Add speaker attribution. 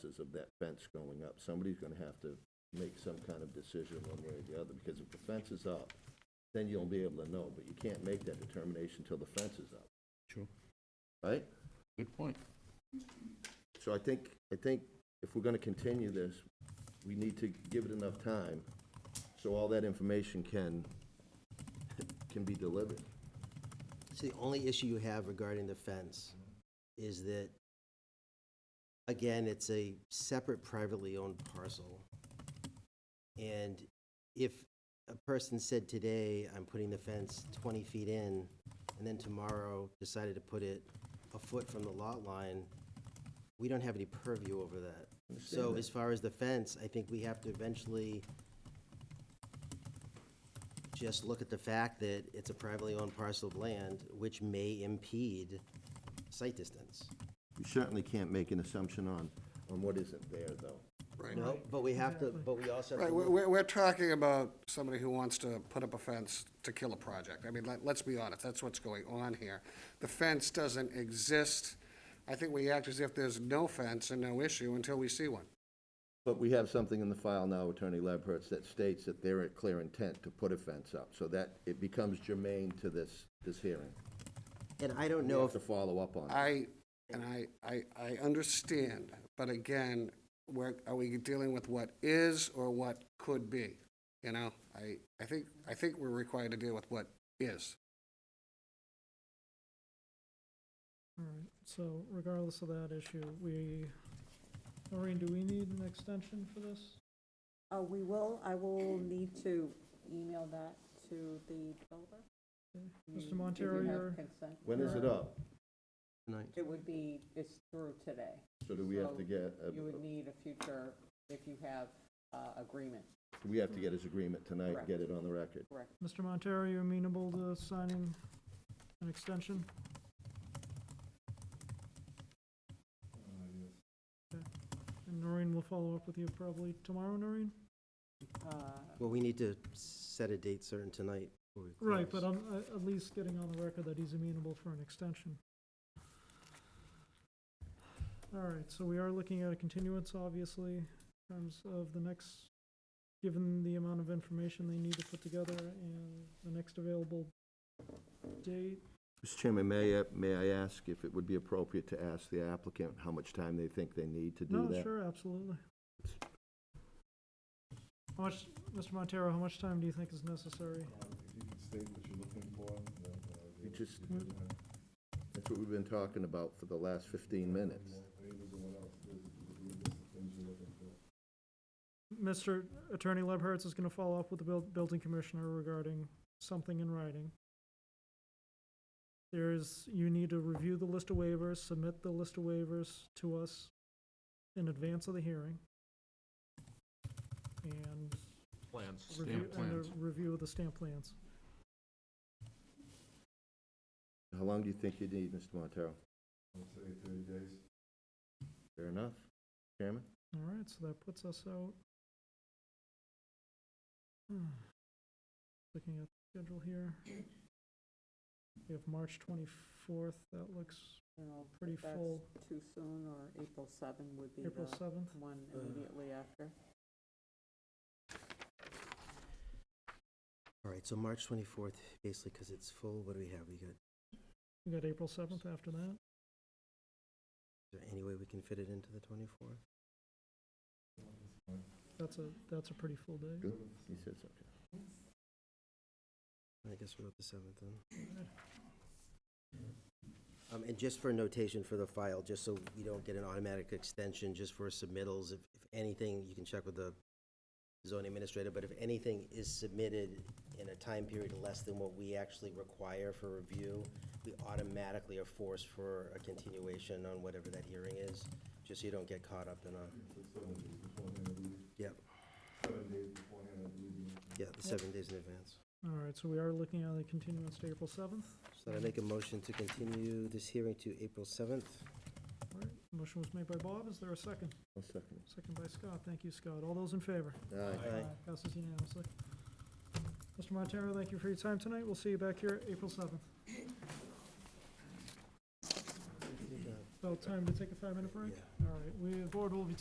Speaker 1: consequences of that fence going up. Somebody's gonna have to make some kind of decision one way or the other, because if the fence is up, then you'll be able to know, but you can't make that determination till the fence is up,
Speaker 2: Sure,
Speaker 1: right?
Speaker 2: good point.
Speaker 1: So I think, I think if we're gonna continue this, we need to give it enough time so all that information can, can be delivered.
Speaker 3: So the only issue you have regarding the fence is that, again, it's a separate privately owned parcel. And if a person said today, I'm putting the fence twenty feet in, and then tomorrow decided to put it a foot from the lot line, we don't have any purview over that. So
Speaker 1: Understand that.
Speaker 3: as far as the fence, I think we have to eventually just look at the fact that it's a privately owned parcel of land, which may impede site distance.
Speaker 1: You certainly can't make an assumption on, on what isn't there, though.
Speaker 3: No, but we have to, but we also have
Speaker 4: Right,
Speaker 3: to
Speaker 4: we're,
Speaker 3: look
Speaker 4: we're- we're talking about somebody who wants to put up a fence to kill a project. I mean, let, let's be honest, that's what's going on here. The fence doesn't exist. I think we act as if there's no fence and no issue until we see one.
Speaker 1: But we have something in the file now, Attorney Lebherz, that states that they're at clear intent to put a fence up, so that it becomes germane to this, this hearing.
Speaker 3: And I don't
Speaker 1: We
Speaker 3: know
Speaker 1: have
Speaker 3: if,
Speaker 1: to follow up on it.
Speaker 4: I, and I, I, I understand, but again, where, are we dealing with what is or what could be? You know, I, I think, I think we're required to deal with what is.
Speaker 5: All right, so regardless of that issue, we, Noreen, do we need an extension for this?
Speaker 6: Uh, we will, I will need to email that to the developer.
Speaker 5: Mr.
Speaker 6: You-
Speaker 5: Montero,
Speaker 6: If you
Speaker 5: you're,
Speaker 6: have consent.
Speaker 1: When is it up?
Speaker 3: tonight,
Speaker 6: It would be, it's through today.
Speaker 1: So do we have to
Speaker 6: So
Speaker 1: get, a-
Speaker 6: You would need a future, if you have, uh, agreement,
Speaker 1: we have to get his agreement tonight and
Speaker 6: Correct.
Speaker 1: get it on the record?
Speaker 6: correct?
Speaker 5: Mr. Montero, you amenable to signing an extension? Okay. And Noreen will follow up with you probably tomorrow, Noreen?
Speaker 6: Uh,
Speaker 3: well, we need to set a date certain tonight. before we
Speaker 5: Right,
Speaker 3: close.
Speaker 5: but I'm, uh, at least getting on the record that he's amenable for an extension. All right, so we are looking at a continuance, obviously, in terms of the next, given the amount of information they need to put together and the next available date.
Speaker 1: Mr. Chairman, may I, may I ask if it would be appropriate to ask the applicant how much time they think they need to do
Speaker 5: No,
Speaker 1: that?
Speaker 5: sure, absolutely. How much, Mr. Montero, how much time do you think is necessary?
Speaker 1: We just, that's what we've been talking about for the last 15 minutes.
Speaker 5: Mr. Attorney Lebherz is gonna follow up with the buil- building commissioner regarding something in writing. There's, you need to review the list of waivers, submit the list of waivers to us in advance of the hearing. And
Speaker 2: Plans.
Speaker 5: review,
Speaker 2: Stamp
Speaker 5: and
Speaker 2: plans.
Speaker 5: a review of the stamp plans.
Speaker 1: How long do you think you need, Mr. Montero? I'd say 30 days. Fair enough. Chairman?
Speaker 5: All right, so that puts us out. Hmm. Looking at the schedule here. We have March twenty-fourth, that looks
Speaker 6: you know, if
Speaker 5: pretty
Speaker 6: that's
Speaker 5: full.
Speaker 6: Too soon, or April seven would be
Speaker 5: April
Speaker 6: the uh,
Speaker 5: seventh.
Speaker 6: one immediately after.
Speaker 3: All right, so March twenty-fourth, basically, because it's full, what do we have? We got, is
Speaker 5: We got April seventh after that.
Speaker 3: there any way we can fit it into the twenty-fourth?
Speaker 5: That's a, that's a pretty full day.
Speaker 1: He says, okay.
Speaker 3: I guess we're at the seventh then. Um, and just for notation for the file, just so you don't get an automatic extension, just for submittals, if, if anything, you can check with the zoning administrator, but if anything is submitted in a time period less than what we actually require for review, we automatically are forced for a continuation on whatever that hearing is, just so you don't get caught up in a. Yep. Yeah, the seven days in advance.
Speaker 5: All right, so we are looking at a continuance to April seventh.
Speaker 3: So I make a motion to continue this hearing to April 7th.
Speaker 5: All right, motion was made by Bob. Is there a second?
Speaker 1: I'll second
Speaker 5: Second by Scott. Thank you, Scott. All those in favor?
Speaker 1: it. Aye.
Speaker 3: Aye.
Speaker 5: Passes unanimously. Mr. Montero, thank you for your time tonight. We'll see you back here April seventh. About time to take a five-minute break?
Speaker 3: Yeah.
Speaker 5: All right, we, the board will be